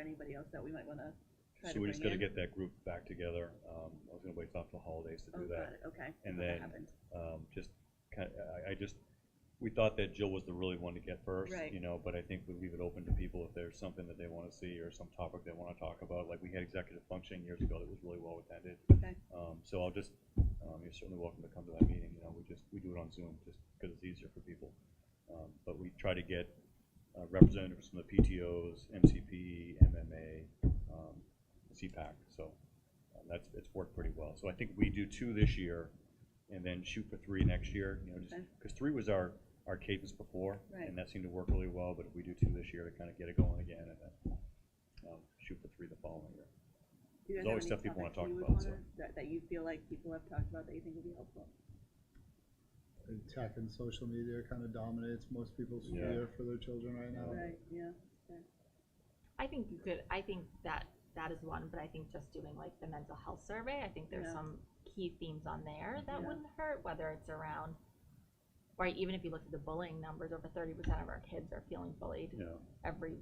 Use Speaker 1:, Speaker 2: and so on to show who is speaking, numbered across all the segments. Speaker 1: anybody else that we might wanna try to
Speaker 2: So we just
Speaker 1: bring
Speaker 2: gotta
Speaker 1: in?
Speaker 2: get that group back together. Um, I was gonna wait till after the holidays to
Speaker 1: Oh,
Speaker 2: do
Speaker 1: got
Speaker 2: that.
Speaker 1: it, okay.
Speaker 2: And
Speaker 1: That
Speaker 2: then,
Speaker 1: happened.
Speaker 2: Um, just kind, I, I just, we thought that Jill was the really one to get first,
Speaker 1: Right.
Speaker 2: you know, but I think we leave it open to people if there's something that they wanna see or some topic they wanna talk about. Like, we had executive functioning years ago that was really well attended.
Speaker 1: Okay.
Speaker 2: Um, so I'll just, um, you're certainly welcome to come to that meeting, you know, we just, we do it on Zoom just because it's easier for people. Um, but we try to get uh, representatives from the PTOs, MCP, MMA, um, CPAC, so um, that's, it's worked pretty well. So I think we do two this year and then shoot for three next year, you know, just,
Speaker 1: Okay.
Speaker 2: because three was our, our cadence before.
Speaker 1: Right.
Speaker 2: And that seemed to work really well, but if we do two this year to kind of get it going again and then, um, shoot for three the following year.
Speaker 1: Do you guys
Speaker 2: there's
Speaker 1: have
Speaker 2: always
Speaker 1: any
Speaker 2: stuff people wanna
Speaker 1: topics you
Speaker 2: talk
Speaker 1: would
Speaker 2: about, so.
Speaker 1: wanna- That, that you feel like people have talked about that you think would be helpful?
Speaker 3: And tech and social media kind of dominates most people's
Speaker 2: Yeah.
Speaker 3: fear for their children right
Speaker 2: Oh.
Speaker 3: now.
Speaker 1: Right, yeah,
Speaker 4: I think you could, I think that that is one, but I think just doing like the mental health survey, I think there's
Speaker 1: Yeah.
Speaker 4: some key themes on there that
Speaker 1: Yeah.
Speaker 4: wouldn't hurt, whether it's around, right, even if you look at the bullying numbers, over thirty percent of our kids are feeling bullied
Speaker 2: Yeah,
Speaker 4: every,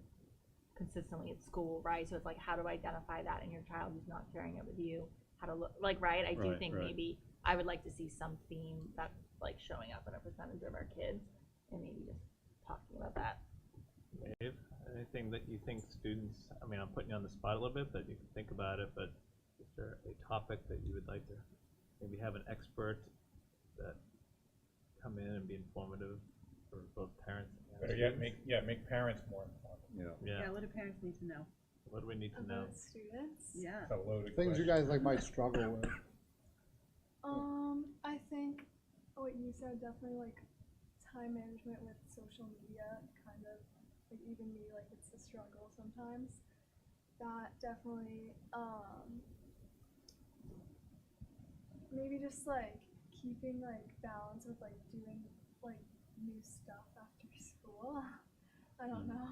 Speaker 4: consistently at school, right? So it's like, how do I identify that in your child who's not sharing it with you? How to look, like, right, I do
Speaker 2: Right,
Speaker 4: think
Speaker 2: right.
Speaker 4: maybe, I would like to see some theme that's like showing up in a percentage of our kids and maybe just talking about that.
Speaker 5: Dave, anything that you think students, I mean, I'm putting you on the spot a little bit, but you can think about it, but is there a topic that you would like to maybe have an expert that come in and be informative for both parents and
Speaker 6: Better yet,
Speaker 5: students?
Speaker 6: make, yeah, make parents more informed.
Speaker 2: yeah.
Speaker 1: yeah,
Speaker 5: Yeah,
Speaker 1: what do parents need to know?
Speaker 5: what do we need to know?
Speaker 7: About students?
Speaker 1: Yeah,
Speaker 6: It's a loaded
Speaker 3: Things you
Speaker 6: question.
Speaker 3: guys like might struggle with.
Speaker 7: Um, I think what you said definitely like time management with social media, kind of like even me, like it's a struggle sometimes. That definitely, um, maybe just like keeping like balance with like doing like new stuff after school. I don't know.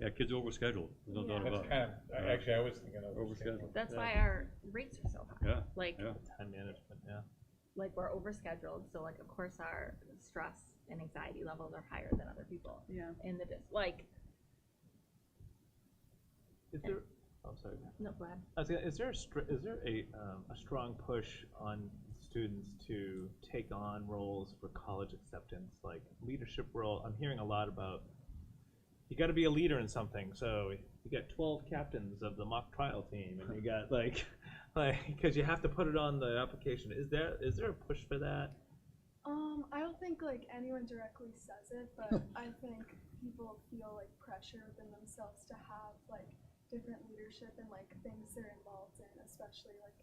Speaker 2: Yeah, kids are overscheduled, there's no doubt
Speaker 7: Yeah.
Speaker 2: about
Speaker 6: That's
Speaker 2: it.
Speaker 6: kind of, I-
Speaker 2: Yeah.
Speaker 6: actually, I was thinking of.
Speaker 2: Overscheduled.
Speaker 4: That's
Speaker 5: Yeah.
Speaker 4: why our rates are so high.
Speaker 2: Yeah,
Speaker 4: Like,
Speaker 2: yeah.
Speaker 5: Time management, yeah.
Speaker 4: like we're overscheduled, so like of course our stress and anxiety levels are higher than other people
Speaker 1: yeah.
Speaker 4: in the dis- like.
Speaker 5: Is there, oh, sorry.
Speaker 4: No, go ahead.
Speaker 5: I was gonna, is there a str- is there a, um, a strong push on students to take on roles for college acceptance, like leadership role? I'm hearing a lot about you got to be a leader in something. So you got 12 captains of the mock trial team, and you got like, like because you have to put it on the application. Is there is there a push for that?
Speaker 7: Um, I don't think like anyone directly says it, but I think people feel like pressure within themselves to have like different leadership and like things they're involved in, especially like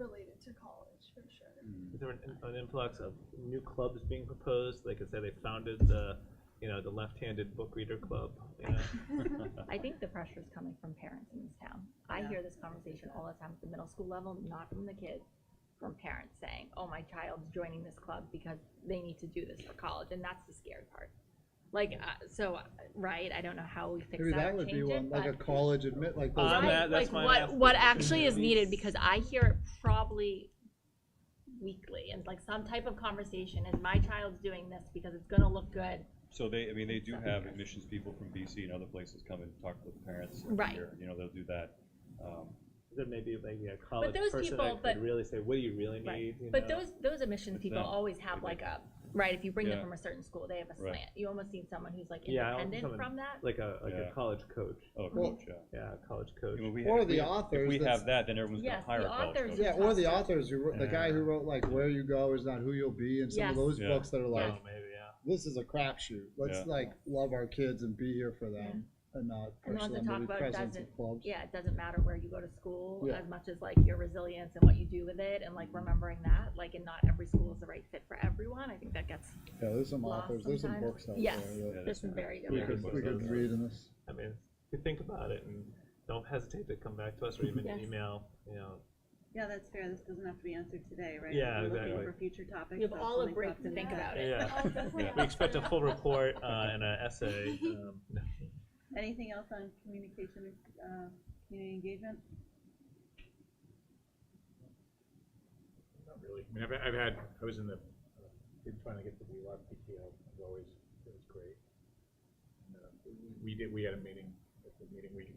Speaker 7: related to college for sure.
Speaker 5: Is there an, an influx of new clubs being proposed? Like I said, they founded the, you know, the left-handed book reader club. You know.
Speaker 4: I think the pressure is coming from parents in this town. I
Speaker 1: Yeah.
Speaker 4: hear this conversation all the time at the middle school level, not from the kids, from parents saying, "Oh, my child's joining this club because they need to do this for college," and that's the scary part. Like, uh, so uh, right, I don't know how we fix
Speaker 3: Maybe
Speaker 4: that,
Speaker 3: that
Speaker 4: or
Speaker 3: would be
Speaker 4: change it,
Speaker 3: one, like a
Speaker 4: but-
Speaker 3: college admit, like those.
Speaker 5: Uh,
Speaker 4: Right,
Speaker 5: that- that's
Speaker 4: like
Speaker 5: my
Speaker 4: what
Speaker 5: last
Speaker 4: what
Speaker 5: thing.
Speaker 4: actually is
Speaker 5: Yeah.
Speaker 4: needed because I hear it probably weekly and like some type of conversation is my child's doing this because it's gonna look good.
Speaker 2: So they, I mean, they do
Speaker 4: Stuff
Speaker 2: have
Speaker 4: like us.
Speaker 2: admissions people from BC and other places come and talk with parents. every
Speaker 4: Right.
Speaker 2: year. You know, they'll do that. Um,
Speaker 5: there may be maybe a college
Speaker 4: those
Speaker 5: person
Speaker 4: people-
Speaker 5: that
Speaker 4: but-
Speaker 5: could really say, "What do you really need?"
Speaker 4: Right.
Speaker 5: You
Speaker 4: But
Speaker 5: know?
Speaker 4: those those admissions
Speaker 2: It's
Speaker 4: people
Speaker 2: them.
Speaker 4: always have like a right, if you bring
Speaker 2: Yeah.
Speaker 4: them from a certain school, they have a
Speaker 2: Right.
Speaker 4: slant. You almost need someone who's like
Speaker 5: Yeah, I want
Speaker 4: independent
Speaker 5: someone-
Speaker 4: from that.
Speaker 5: like a like
Speaker 2: Yeah.
Speaker 5: a college coach.
Speaker 2: oh,
Speaker 3: Well-
Speaker 2: coach, yeah.
Speaker 5: Yeah, a college coach.
Speaker 2: I mean, we-
Speaker 3: Or
Speaker 2: if
Speaker 3: the
Speaker 2: we-
Speaker 3: authors
Speaker 2: If we
Speaker 3: that's-
Speaker 2: have that, then everyone's gonna
Speaker 4: Yes,
Speaker 2: hire a
Speaker 4: the
Speaker 2: college
Speaker 4: authors
Speaker 2: coach.
Speaker 3: Yeah, or the
Speaker 4: Yeah.
Speaker 3: authors who wrote, the guy who wrote like Where You Go Is Not Who You'll Be and some of
Speaker 4: Yes.
Speaker 3: those
Speaker 2: Yeah.
Speaker 3: books that are like,
Speaker 5: oh, maybe yeah.
Speaker 3: this is a crapshoot. Let's
Speaker 2: Yeah.
Speaker 3: like love our kids and be here for them and not
Speaker 4: And the
Speaker 3: push
Speaker 4: ones that
Speaker 3: them
Speaker 4: talk
Speaker 3: to the
Speaker 4: about it
Speaker 3: presence
Speaker 4: doesn't-
Speaker 3: of clubs.
Speaker 4: Yeah, it doesn't matter where you go to school
Speaker 3: Yeah.
Speaker 4: as much as like your resilience and what you do with it and like remembering that. Like and not every school is the right fit for everyone. I think that gets
Speaker 3: Yeah, there's some
Speaker 4: Lost
Speaker 3: authors, there's some
Speaker 4: sometimes.
Speaker 3: books out
Speaker 4: Yes.
Speaker 3: there that
Speaker 2: that's
Speaker 4: there's some
Speaker 2: right.
Speaker 4: very
Speaker 3: we
Speaker 4: different
Speaker 3: could, we could
Speaker 2: Yeah.
Speaker 3: read in this.
Speaker 5: I mean, if you think about it, and don't hesitate to come back to us or even
Speaker 4: Yes.
Speaker 5: email. You know,
Speaker 1: Yeah, that's fair, this doesn't have to be answered today, right?
Speaker 5: Yeah,
Speaker 1: We're Looking
Speaker 5: exactly.
Speaker 1: for future topics.
Speaker 4: You have
Speaker 1: that's
Speaker 4: all a
Speaker 1: something
Speaker 4: break
Speaker 1: up
Speaker 4: to think
Speaker 1: the-
Speaker 4: about it.
Speaker 5: yeah.
Speaker 7: I'll definitely
Speaker 5: We
Speaker 7: ask
Speaker 5: expect a
Speaker 7: her.
Speaker 5: full report uh, and an essay. Um,
Speaker 1: Anything else on communication, uh, community engagement?
Speaker 6: Not really. I mean, I've, I've had, I was in the, uh, been trying to get the WeLab PTO, it was always, it was great. And, uh, we- We did, we had a meeting, at the meeting, we